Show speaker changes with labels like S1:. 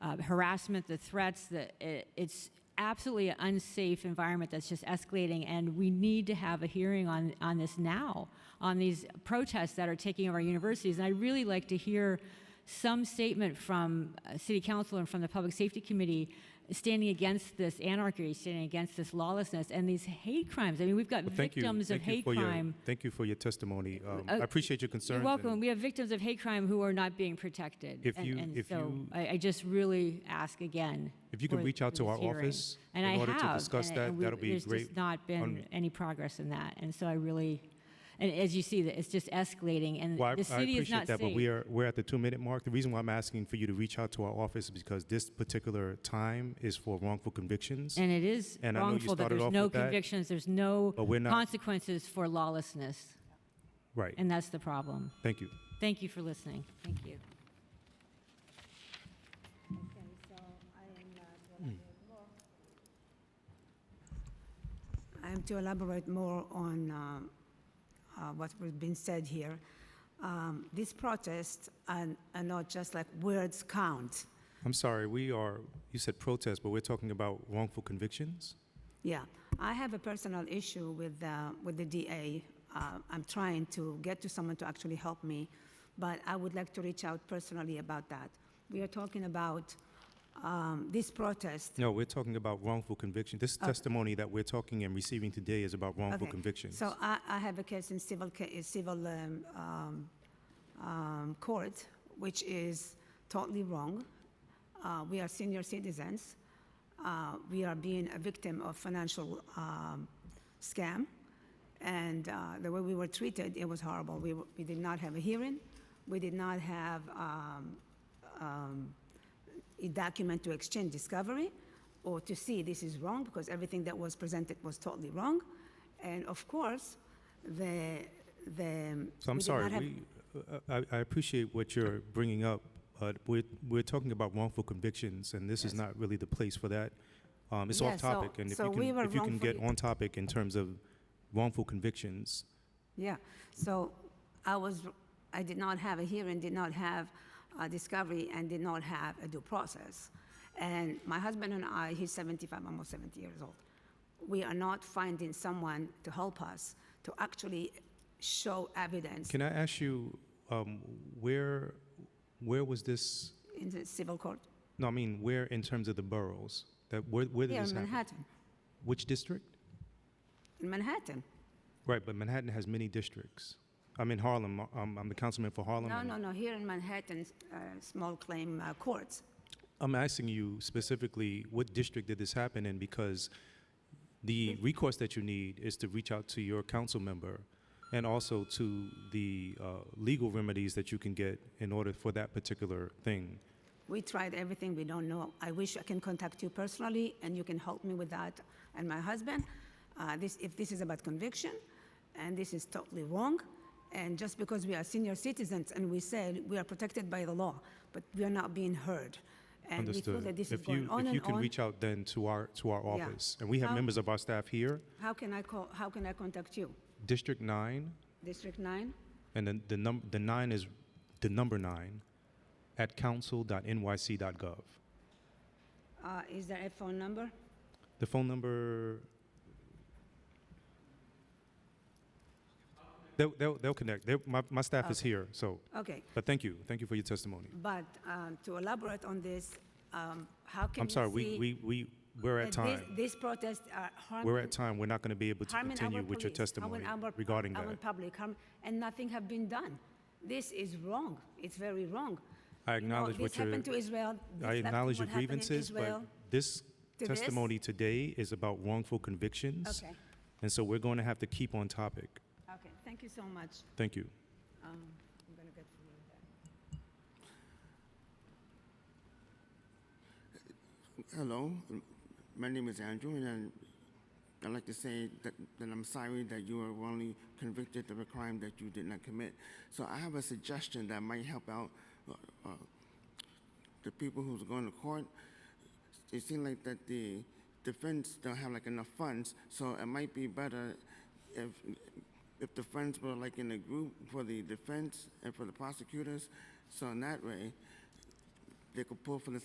S1: uh, harassment, the threats, the, it, it's absolutely an unsafe environment that's just escalating, and we need to have a hearing on, on this now, on these protests that are taking over our universities. And I'd really like to hear some statement from uh, City Council and from the Public Safety Committee standing against this anarchy, standing against this lawlessness, and these hate crimes. I mean, we've got
S2: Well, thank you.
S1: victims
S2: Thank
S1: of
S2: you
S1: hate
S2: for your-
S1: crime.
S2: Thank you for your testimony. Um,
S1: Uh,
S2: I appreciate your concerns.
S1: You're welcome.
S2: and
S1: We have victims of hate crime who are not being protected.
S2: If
S1: and,
S2: you-
S1: and
S2: if
S1: so
S2: you-
S1: I, I just really ask again.
S2: If you can
S1: for-
S2: reach out
S1: for
S2: to
S1: this
S2: our
S1: hearing.
S2: office
S1: and
S2: in
S1: I
S2: order to
S1: have,
S2: discuss
S1: and-
S2: that,
S1: and we-
S2: that'll be
S1: there's
S2: great
S1: Just not been
S2: on-
S1: any progress in that, and so I really, and as you see, that it's just escalating, and
S2: Well, I,
S1: the
S2: I
S1: city is
S2: appreciate
S1: not
S2: that,
S1: safe.
S2: but we are we're at the two minute mark. The reason why I'm asking for you to reach out to our office is because this particular time is for wrongful convictions.
S1: and it is
S2: and I know you
S1: wrongful that
S2: started
S1: there's
S2: off
S1: no
S2: with that,
S1: convictions, there's no
S2: but we're not-
S1: consequences for lawlessness,
S2: right.
S1: and that's the problem.
S2: Thank you.
S1: Thank you for listening. Thank you.
S3: Um, to elaborate more on um, uh, what was being said here, um, these protests are, are not just like words count.
S2: I'm sorry. We are. You said protest, but we're talking about wrongful convictions.
S3: Yeah, I have a personal issue with uh, with the DA. Uh, I'm trying to get to someone to actually help me, but I would like to reach out personally about that. We are talking about um, this protest.
S2: No, we're talking about wrongful conviction. This testimony that we're talking and receiving today is about wrongful
S3: Okay.
S2: convictions.
S3: So I, I have a case in civil, ca- uh, civil um, um, um, court, which is totally wrong. Uh, we are senior citizens. Uh, we are being a victim of financial um, scam. And uh, the way we were treated, it was horrible. We, were- we did not have a hearing. We did not have um, um, a document to exchange discovery or to see this is wrong because everything that was presented was totally wrong. And of course, the, the.
S2: So I'm
S3: we did
S2: sorry,
S3: not have-
S2: we, uh, I, I appreciate what you're bringing up, but we're, we're talking about wrongful convictions, and this is not really the place for that. Um, it's
S3: Yeah,
S2: off
S3: so-
S2: topic, and if
S3: so
S2: you
S3: we
S2: can,
S3: were
S2: if you can get
S3: wrongfully-
S2: on topic in terms of wrongful convictions,
S3: Yeah, so I was, I did not have a hearing, did not have a discovery, and did not have a due process. And my husband and I, he's 75, almost 70 years old. We are not finding someone to help us to actually show evidence
S2: can I ask you, um, where, where was this,
S3: in the civil court
S2: no, I mean, where in terms of the boroughs? That, where, where did
S3: here
S2: this
S3: in
S2: happen?
S3: Manhattan.
S2: Which district?
S3: In Manhattan.
S2: Right, but Manhattan has many districts. I'm in Harlem, I'm, I'm the councilman for Harlem.
S3: No,
S2: and-
S3: no, no, here in Manhattan, uh, small claim uh, courts.
S2: I'm asking you specifically, what district did this happen in? Because the
S3: Mm-hmm.
S2: recourse that you need is to reach out to your council member and also to the uh, legal remedies that you can get in order for that particular thing.
S3: We tried everything, we don't know. I wish I can contact you personally and you can help me with that and my husband. Uh, this, if this is about conviction, and this is totally wrong, and just because we are senior citizens and we say we are protected by the law, but we are not being heard. And we feel
S2: Understood.
S3: that this is
S2: If
S3: going
S2: you,
S3: on
S2: if you
S3: and
S2: can
S3: on.
S2: reach out then to our, to our
S3: Yeah.
S2: office, and we have
S3: How-
S2: members of our staff here,
S3: how, can I call, how can I contact you?
S2: District Nine,
S3: District 9?
S2: and then the num, the nine is the number nine, at council.nyc.gov.
S3: Uh, is there a phone number?
S2: The phone number. They'll, they'll, they'll connect. They're, my, my staff is here, so.
S3: Okay.
S2: But thank you. Thank you for your testimony.
S3: But um, to elaborate on this, um, how can
S2: I'm sorry,
S3: you
S2: we,
S3: see
S2: we, we, we're at
S3: that
S2: time.
S3: These, these protests are harming,
S2: We're at time. We're not going to be able to
S3: harming our
S2: continue with your
S3: police,
S2: testimony
S3: harming our,
S2: regarding
S3: our
S2: that.
S3: public, harm, and nothing have been done. This is wrong. It's very wrong.
S2: I
S3: You know,
S2: acknowledge what
S3: this happened
S2: your,
S3: to Israel. This
S2: I
S3: happened-
S2: acknowledge your
S3: what happened in
S2: grievances, but
S3: Israel.
S2: this
S3: this.
S2: testimony today is about wrongful convictions.
S3: Okay.
S2: And so we're going to have to keep on topic.
S3: Okay. Thank you so much.
S2: Thank you.
S3: Um, I'm gonna get from you.
S4: Hello, um, my name is Andrew, and I- I'd like to say that, that I'm sorry that you were wrongly convicted of a crime that you did not commit. So I have a suggestion that might help out uh, uh, the people who's going to court. It seems like that the defense don't have like enough funds, so it might be better if if the funds were like in a group for the defense and for the prosecutors. So in that way, they could pull from the